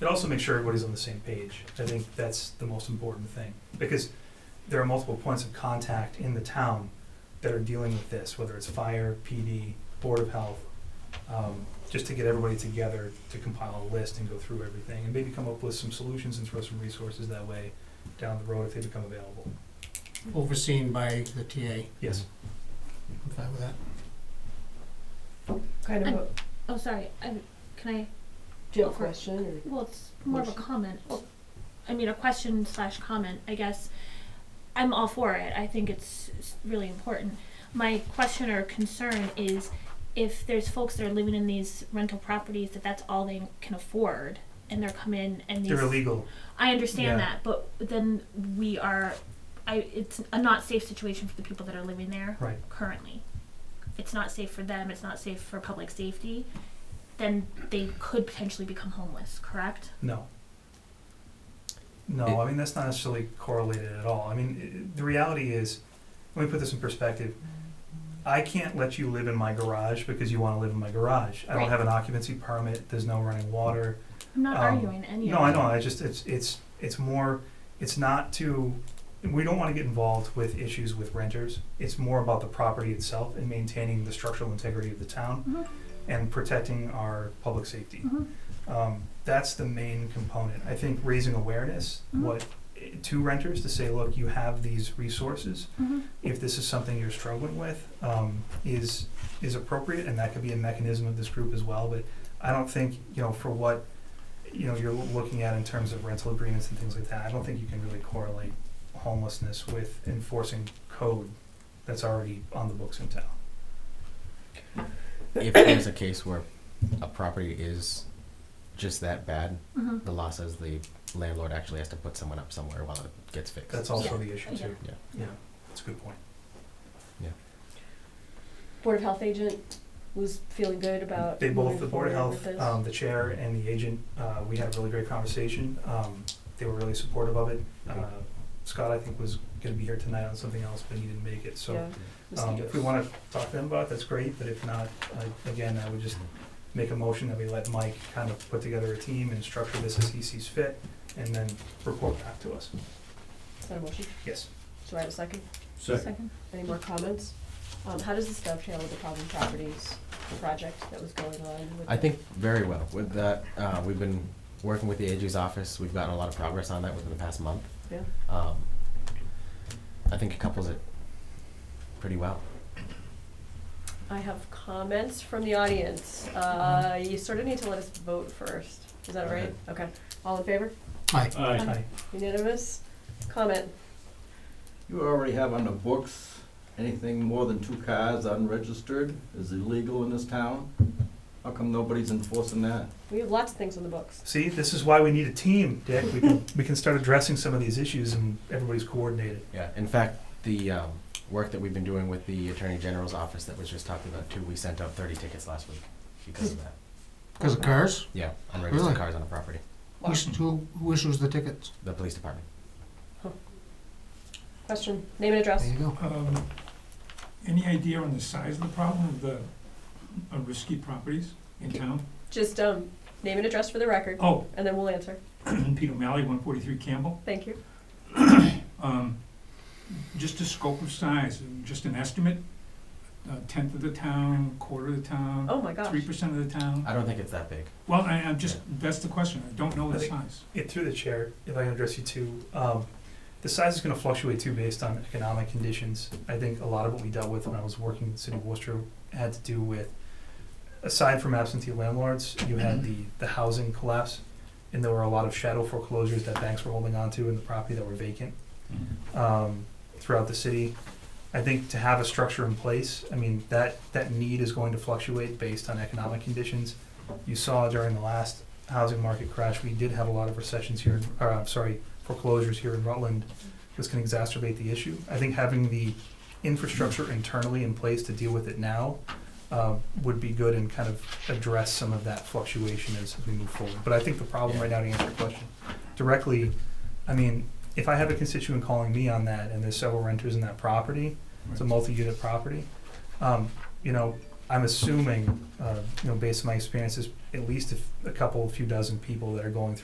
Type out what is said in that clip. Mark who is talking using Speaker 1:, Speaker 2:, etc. Speaker 1: It also makes sure everybody's on the same page. I think that's the most important thing, because there are multiple points of contact in the town that are dealing with this, whether it's fire, PD, Board of Health, um, just to get everybody together to compile a list and go through everything, and maybe come up with some solutions and throw some resources that way down the road if they become available.
Speaker 2: overseen by the TA.
Speaker 1: Yes,
Speaker 2: I'm fine with that.
Speaker 3: Kind of a
Speaker 4: Oh, sorry. I, can I?
Speaker 3: Jill
Speaker 4: for-
Speaker 3: question
Speaker 4: Well, it's more of a
Speaker 3: Motion.
Speaker 4: comment. I mean, a question slash comment. I guess I'm all for it. I think it's, it's really important. My question or concern is if there's folks that are living in these rental properties that that's all they can afford, and they're coming and these
Speaker 1: they're illegal.
Speaker 4: I understand
Speaker 1: Yeah.
Speaker 4: that, but then we are, I, it's a not safe situation for the people that are living there
Speaker 1: Right.
Speaker 4: currently. It's not safe for them, it's not safe for public safety, then they could potentially become homeless, correct?
Speaker 1: No. No, I mean, that's not necessarily correlated at all. I mean, i- i- the reality is, let me put this in perspective. I can't let you live in my garage because you want to live in my garage. I don't
Speaker 4: Right.
Speaker 1: have an occupancy permit, there's no running water.
Speaker 4: I'm not
Speaker 1: Um,
Speaker 4: arguing any
Speaker 1: No,
Speaker 4: of
Speaker 1: I
Speaker 4: that.
Speaker 1: know, I just, it's, it's, it's more, it's not to, we don't want to get involved with issues with renters. It's more about the property itself and maintaining the structural integrity of the town
Speaker 4: Mhm.
Speaker 1: and protecting our public safety
Speaker 4: Mhm.
Speaker 1: um, that's the main component. I think raising awareness,
Speaker 4: Mhm.
Speaker 1: what to renters to say, look, you have these resources.
Speaker 4: Mhm.
Speaker 1: If this is something you're struggling with, um, is is appropriate, and that could be a mechanism of this group as well. But I don't think you know for what you know you're looking at in terms of rental agreements and things like that. I don't think you can really correlate homelessness with enforcing code that's already on the books in town.
Speaker 5: if there's a case where a property is just that bad,
Speaker 4: Mhm.
Speaker 5: the law says the landlord actually has to put someone up somewhere while it gets fixed.
Speaker 1: That's also
Speaker 4: Yeah.
Speaker 1: the issue too.
Speaker 5: Yeah.
Speaker 1: yeah, that's a good point.
Speaker 3: Board of Health agent was feeling good about.
Speaker 1: They both,
Speaker 3: moving
Speaker 1: the Board of
Speaker 3: forward with
Speaker 1: Health,
Speaker 3: this.
Speaker 1: um, the chair and the agent, uh, we had a really great conversation. Um, they were really supportive of it. Uh, Scott, I think, was gonna be here tonight on something else, but he didn't make it, so.
Speaker 3: Yeah,
Speaker 1: Um, if we
Speaker 3: mosquitoes.
Speaker 1: wanna talk to them about it, that's great, but if not, I, again, I would just make a motion that we let Mike kind of put together a team and structure this as he sees fit, and then report back to us.
Speaker 3: Is that a motion?
Speaker 1: Yes.
Speaker 3: So I have a second.
Speaker 4: Second.
Speaker 3: Any more comments? Um, how does this dovetail with the problem properties project that was going on with?
Speaker 5: I
Speaker 3: the-
Speaker 5: think very well. With that, uh, we've been working with the AG's office. We've gotten a lot of progress on that within the past month.
Speaker 3: Yeah,
Speaker 5: Um, I think it couples it pretty well.
Speaker 3: I have comments from the audience. Uh,
Speaker 5: Mm-hmm.
Speaker 3: you sort of need to let us vote first. Is that all right? Okay.
Speaker 5: Alright.
Speaker 3: All in favor?
Speaker 2: Aye.
Speaker 6: Aye.
Speaker 1: Hi.
Speaker 3: Unanimous? Comment?
Speaker 6: You already have on the books, anything more than two cars unregistered is illegal in this town. How come nobody's enforcing that?
Speaker 3: We have lots of things on the books.
Speaker 1: See, this is why we need a team, Dick. We can, we can start addressing some of these issues and everybody's coordinated.
Speaker 5: Yeah. In fact, the um, work that we've been doing with the Attorney General's office that was just talked about too, we sent out 30 tickets last week because of that.
Speaker 2: Because of cars?
Speaker 5: Yeah, unregistered
Speaker 2: Really?
Speaker 5: cars on a property.
Speaker 2: Who is- Who, who issues the tickets?
Speaker 5: The police department.
Speaker 3: Question, name and address.
Speaker 2: There you go.
Speaker 7: Um, Any idea on the size of the problem of the uh, risky properties in town?
Speaker 3: Just um, name and address for the record,
Speaker 7: Oh,
Speaker 3: and then we'll answer.
Speaker 7: Peter Malley, one forty-three Campbell.
Speaker 3: Thank you.
Speaker 7: Um, Just a scope of size, just an estimate, a tenth of the town, quarter of the town,
Speaker 3: Oh my gosh.
Speaker 7: Uh, three percent of the town?
Speaker 5: I don't think it's that big.
Speaker 7: Well, I, I'm just, that's the question, I don't know
Speaker 1: I
Speaker 7: the
Speaker 1: think-
Speaker 7: size.
Speaker 1: it through the chair, if I can address you too, um, the size is gonna fluctuate too based on economic conditions. I think a lot of what we dealt with when I was working in the city of Worcester had to do with, aside from absentee landlords, you had
Speaker 7: Mm-hmm.
Speaker 1: the, the housing collapse. And there were a lot of shadow foreclosures that banks were holding on to in the property that were vacant
Speaker 7: Mm-hmm.
Speaker 1: um, throughout the city. I think to have a structure in place, I mean, that, that need is going to fluctuate based on economic conditions. You saw during the last housing market crash, we did have a lot of recessions here, in- or I'm sorry, foreclosures here in Rutland. This can exacerbate the issue. I think having the infrastructure internally in place to deal with it now uh, would be good and kind of address some of that fluctuation as we move forward. But I think the problem right now, to answer your question directly, I mean, if I have a constituent calling me on that and there's several renters in that property, it's a multi-unit property, um, you know, I'm assuming, uh, you know, based on my experiences, at least a f- a couple, few dozen people that are going through